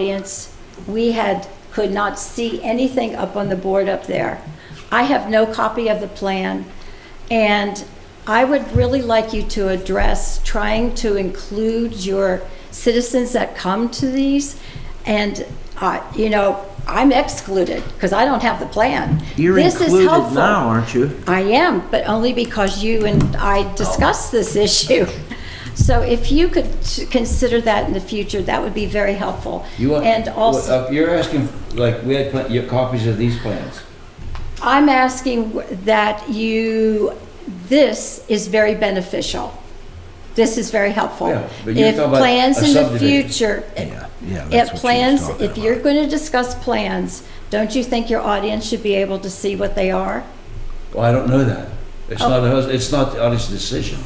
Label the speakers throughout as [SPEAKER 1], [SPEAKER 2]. [SPEAKER 1] audience. We had, could not see anything up on the board up there. I have no copy of the plan, and I would really like you to address trying to include your citizens that come to these, and, uh, you know, I'm excluded, because I don't have the plan.
[SPEAKER 2] You're
[SPEAKER 1] This is
[SPEAKER 2] included
[SPEAKER 1] helpful.
[SPEAKER 2] now, aren't you?
[SPEAKER 1] I am, but only because you and I discussed this issue. So if you could s- consider that in the future, that would be very helpful.
[SPEAKER 3] You want,
[SPEAKER 1] And also,
[SPEAKER 3] uh, you're asking, like, we had pl- your copies of these plans.
[SPEAKER 1] I'm asking w- that you, this is very beneficial. This is very helpful.
[SPEAKER 3] Yeah, but you're talking about
[SPEAKER 1] If plans
[SPEAKER 3] a
[SPEAKER 1] in the
[SPEAKER 3] subdivision.
[SPEAKER 1] future,
[SPEAKER 4] Yeah, yeah,
[SPEAKER 1] if
[SPEAKER 4] that's what she was
[SPEAKER 1] plans,
[SPEAKER 4] talking
[SPEAKER 1] if you're going to discuss plans, don't you think your audience should be able to see what they are?
[SPEAKER 3] Well, I don't know that. It's not, a hus- it's not the audience decision.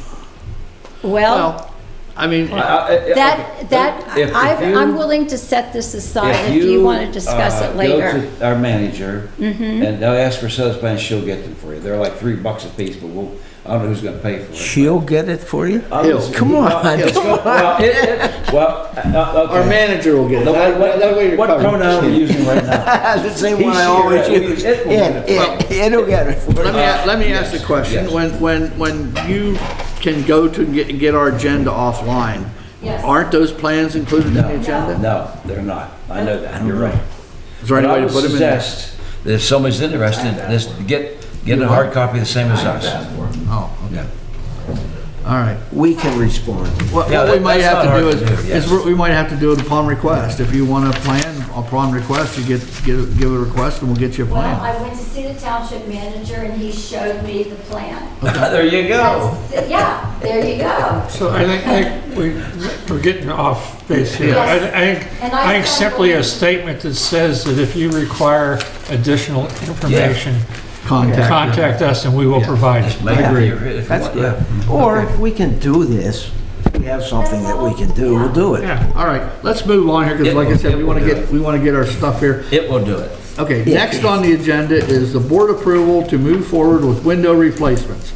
[SPEAKER 1] Well,
[SPEAKER 4] Well, I mean,
[SPEAKER 3] I- I- I- okay.
[SPEAKER 1] That, that,
[SPEAKER 3] If- if
[SPEAKER 1] I, I'm
[SPEAKER 3] you-
[SPEAKER 1] willing to set this aside
[SPEAKER 3] if
[SPEAKER 1] if you want to discuss
[SPEAKER 3] uh,
[SPEAKER 1] it later. Mm-hmm.
[SPEAKER 3] Go to our manager, and they'll ask for sales plans, she'll get them for you. They're like three bucks a piece, but we'll, I don't know who's gonna pay for it.
[SPEAKER 2] She'll get it for you?
[SPEAKER 3] I'll just-
[SPEAKER 2] Come on,
[SPEAKER 3] Well, it's
[SPEAKER 2] come
[SPEAKER 3] go- well, it- it- Well, uh, okay.
[SPEAKER 4] our manager will get it.
[SPEAKER 3] The-
[SPEAKER 4] That-
[SPEAKER 3] What
[SPEAKER 4] that way you're
[SPEAKER 3] what
[SPEAKER 4] covered.
[SPEAKER 3] pronoun are you using right now?
[SPEAKER 2] the same
[SPEAKER 3] He,
[SPEAKER 2] one I
[SPEAKER 3] she,
[SPEAKER 2] always
[SPEAKER 3] it,
[SPEAKER 2] use.
[SPEAKER 3] it will
[SPEAKER 2] Yeah,
[SPEAKER 3] get it.
[SPEAKER 2] yeah, it'll get it for
[SPEAKER 4] Let
[SPEAKER 2] you.
[SPEAKER 4] me, a- let me
[SPEAKER 3] Uh, Yes,
[SPEAKER 4] ask the question.
[SPEAKER 3] yes.
[SPEAKER 4] When, when, when you can go to get, get our agenda offline,
[SPEAKER 1] Yes.
[SPEAKER 4] aren't those plans included in the agenda?
[SPEAKER 3] No, they're not. I know that. You're right.
[SPEAKER 4] Is there any
[SPEAKER 3] But I
[SPEAKER 4] way
[SPEAKER 3] would
[SPEAKER 4] to put them in? there?
[SPEAKER 3] suggest that if somebody's interested, just get, get a hard copy the same as us.
[SPEAKER 4] Oh, okay. All right.
[SPEAKER 2] We can respond.
[SPEAKER 4] What,
[SPEAKER 3] Yeah,
[SPEAKER 4] what we
[SPEAKER 3] that-
[SPEAKER 4] might
[SPEAKER 3] that's
[SPEAKER 4] have
[SPEAKER 3] not
[SPEAKER 4] to do
[SPEAKER 3] hard
[SPEAKER 4] is,
[SPEAKER 3] to do, yes.
[SPEAKER 4] is we- we might have to do it upon request. If you want a plan upon request, you get, get, a- give a request and we'll get you a
[SPEAKER 1] Well,
[SPEAKER 4] plan.
[SPEAKER 1] I went to see the township manager and he showed me the plan.
[SPEAKER 3] There you go.
[SPEAKER 1] That's- Yeah, there you go.
[SPEAKER 5] So I think, I think we, we're getting off base here. I
[SPEAKER 1] Yes.
[SPEAKER 5] I think,
[SPEAKER 1] And
[SPEAKER 5] I
[SPEAKER 1] I-
[SPEAKER 5] think simply a statement that says that if you require additional information,
[SPEAKER 4] Contact.
[SPEAKER 5] contact us and we will provide it.
[SPEAKER 3] Like,
[SPEAKER 2] Yeah.
[SPEAKER 3] if you- if you
[SPEAKER 2] That's
[SPEAKER 3] want-
[SPEAKER 2] good.
[SPEAKER 3] yeah.
[SPEAKER 2] Or if we can do this, if we have something that we can do, we'll do it.
[SPEAKER 5] Yeah.
[SPEAKER 4] All right, let's move on here because
[SPEAKER 3] It
[SPEAKER 4] like I
[SPEAKER 3] will-
[SPEAKER 4] said,
[SPEAKER 3] it
[SPEAKER 4] we
[SPEAKER 3] will
[SPEAKER 4] want to
[SPEAKER 3] do
[SPEAKER 4] get,
[SPEAKER 3] it.
[SPEAKER 4] we want to get our stuff here.
[SPEAKER 3] It will do it.
[SPEAKER 4] Okay, next on the agenda is the board approval to move forward with window replacements.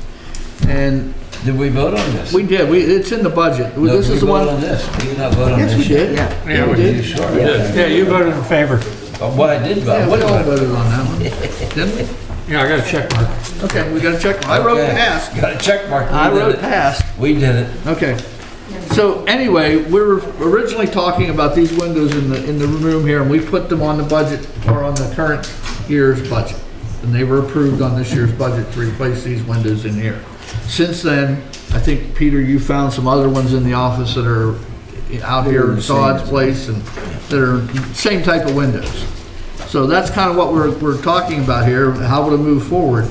[SPEAKER 4] And
[SPEAKER 3] Did we vote on this?
[SPEAKER 4] we did, we, it's in the budget.
[SPEAKER 3] No,
[SPEAKER 4] This
[SPEAKER 3] we
[SPEAKER 4] is the
[SPEAKER 3] voted on
[SPEAKER 4] one.
[SPEAKER 3] this. We did not vote on this.
[SPEAKER 4] Yes, we
[SPEAKER 3] yet.
[SPEAKER 4] did.
[SPEAKER 2] Yeah.
[SPEAKER 5] Yeah,
[SPEAKER 4] We
[SPEAKER 5] we
[SPEAKER 3] You
[SPEAKER 4] did.
[SPEAKER 3] sure did.
[SPEAKER 5] Yeah, you voted in favor.
[SPEAKER 3] But What I did vote,
[SPEAKER 4] Yeah, we
[SPEAKER 3] what
[SPEAKER 4] all
[SPEAKER 3] I
[SPEAKER 4] voted on that one, didn't we?
[SPEAKER 5] Yeah, I got a check mark.
[SPEAKER 4] Okay, we got to check. I wrote
[SPEAKER 3] Okay.
[SPEAKER 4] pass.
[SPEAKER 3] Got a check mark. We
[SPEAKER 4] I
[SPEAKER 3] did
[SPEAKER 4] wrote
[SPEAKER 3] it.
[SPEAKER 4] pass.
[SPEAKER 3] We did it.
[SPEAKER 4] Okay. So anyway, we were originally talking about these windows in the, in the room here, and we put them on the budget, or on the current year's budget. And they were approved on this year's budget to replace these windows in here. Since then, I think, Peter, you found some other ones in the office that are out here in Todd's place and that are same type of windows. So that's kind of what we're, we're talking about here, how to move forward.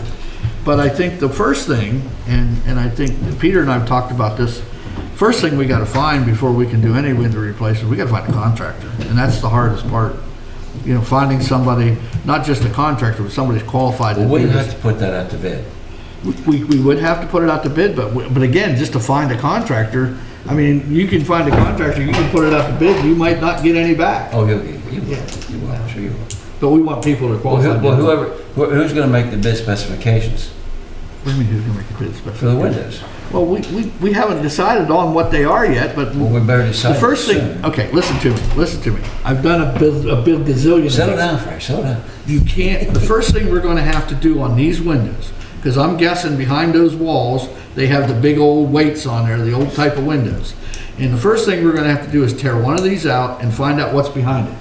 [SPEAKER 4] But I think the first thing, and, and I think that Peter and I have talked about this, first thing we gotta find before we can do any window replacement, we gotta find a contractor. And that's the hardest part, you know, finding somebody, not just a contractor, but somebody who's qualified to
[SPEAKER 3] We
[SPEAKER 4] do
[SPEAKER 3] have
[SPEAKER 4] this.
[SPEAKER 3] to put that out to bid.
[SPEAKER 4] We, we would have to put it out to bid, but, we- but again, just to find a contractor, I mean, you can find a contractor, you can put it out to bid, you might not get any back.
[SPEAKER 3] Oh, you'll get, you will, you will, I'm sure you will.
[SPEAKER 4] But we want people to
[SPEAKER 3] Well,
[SPEAKER 4] qualify.
[SPEAKER 3] who- well, whoever, who- who's gonna make the bid specifications
[SPEAKER 4] What do you mean, who's gonna make the bid
[SPEAKER 3] for
[SPEAKER 4] special?
[SPEAKER 3] the windows?
[SPEAKER 4] Well, we, we, we haven't decided on what they are yet, but
[SPEAKER 3] Well, we better
[SPEAKER 4] the
[SPEAKER 3] decide.
[SPEAKER 4] first
[SPEAKER 3] soon.
[SPEAKER 4] thing, okay, listen to me, listen to me. I've done a biz, a biz gazillion.
[SPEAKER 3] Settle
[SPEAKER 4] things.
[SPEAKER 3] down, Frank, settle down.
[SPEAKER 4] You can't, the first thing we're gonna have to do on these windows, because I'm guessing behind those walls, they have the big old weights on there, the old type of windows. And the first thing we're gonna have to do is tear one of these out and find out what's behind it,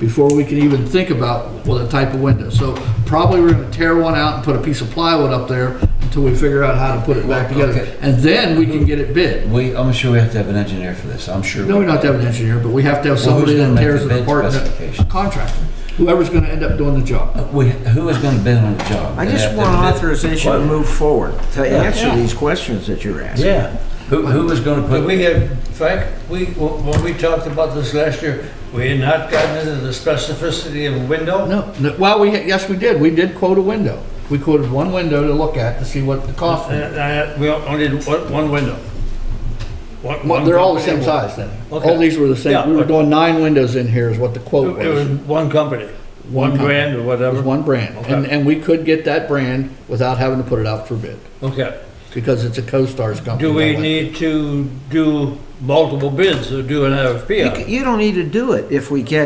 [SPEAKER 4] before we can even think about, well, the type of window. So probably we're gonna tear one out and put a piece of plywood up there until we figure out how to put it back
[SPEAKER 3] Okay.
[SPEAKER 4] together. And then we can get it bid.
[SPEAKER 3] We, I'm sure we have to have an engineer for this, I'm sure.
[SPEAKER 4] No,
[SPEAKER 3] we
[SPEAKER 4] we don't have to have an engineer, but we have to have somebody
[SPEAKER 3] Well,
[SPEAKER 4] that
[SPEAKER 3] who's gonna make the
[SPEAKER 4] tears it
[SPEAKER 3] bid
[SPEAKER 4] apart, a
[SPEAKER 3] specification?
[SPEAKER 4] contractor, whoever's gonna end up doing the job.
[SPEAKER 3] We, who is gonna bid on the job?
[SPEAKER 2] I
[SPEAKER 3] They
[SPEAKER 2] just
[SPEAKER 3] have to
[SPEAKER 2] want
[SPEAKER 3] bid.
[SPEAKER 2] authorization to move forward, to answer
[SPEAKER 3] Yeah.
[SPEAKER 2] these questions that you're asking.
[SPEAKER 3] Yeah, who, who is gonna
[SPEAKER 6] But we
[SPEAKER 3] put,
[SPEAKER 6] have, Frank, we, when we talked about this last year, we had not gotten into the specificity of a window.
[SPEAKER 4] No, no, well, we, yes, we did, we did quote a window. We quoted one window to look at to see what the cost was.
[SPEAKER 6] And I- We Uh, only did one one window. One-
[SPEAKER 4] Well, They're all the same
[SPEAKER 6] one company.
[SPEAKER 4] size then.
[SPEAKER 6] Okay.
[SPEAKER 4] All these were the same,
[SPEAKER 6] Yeah,
[SPEAKER 4] we were
[SPEAKER 6] okay.
[SPEAKER 4] doing nine windows in here is what the quote
[SPEAKER 6] It was
[SPEAKER 4] was.
[SPEAKER 6] one company, one
[SPEAKER 4] company.
[SPEAKER 6] brand or
[SPEAKER 4] It
[SPEAKER 6] whatever.
[SPEAKER 4] was one brand, and,
[SPEAKER 6] Okay.
[SPEAKER 4] and we could get that brand without having to put it out for bid,
[SPEAKER 6] Okay.
[SPEAKER 4] because it's a CoStar's company.
[SPEAKER 6] Do we
[SPEAKER 4] that way.
[SPEAKER 6] need to do multiple bids or do an RFP?
[SPEAKER 2] You
[SPEAKER 6] on it?
[SPEAKER 2] c- You don't need to do it if we get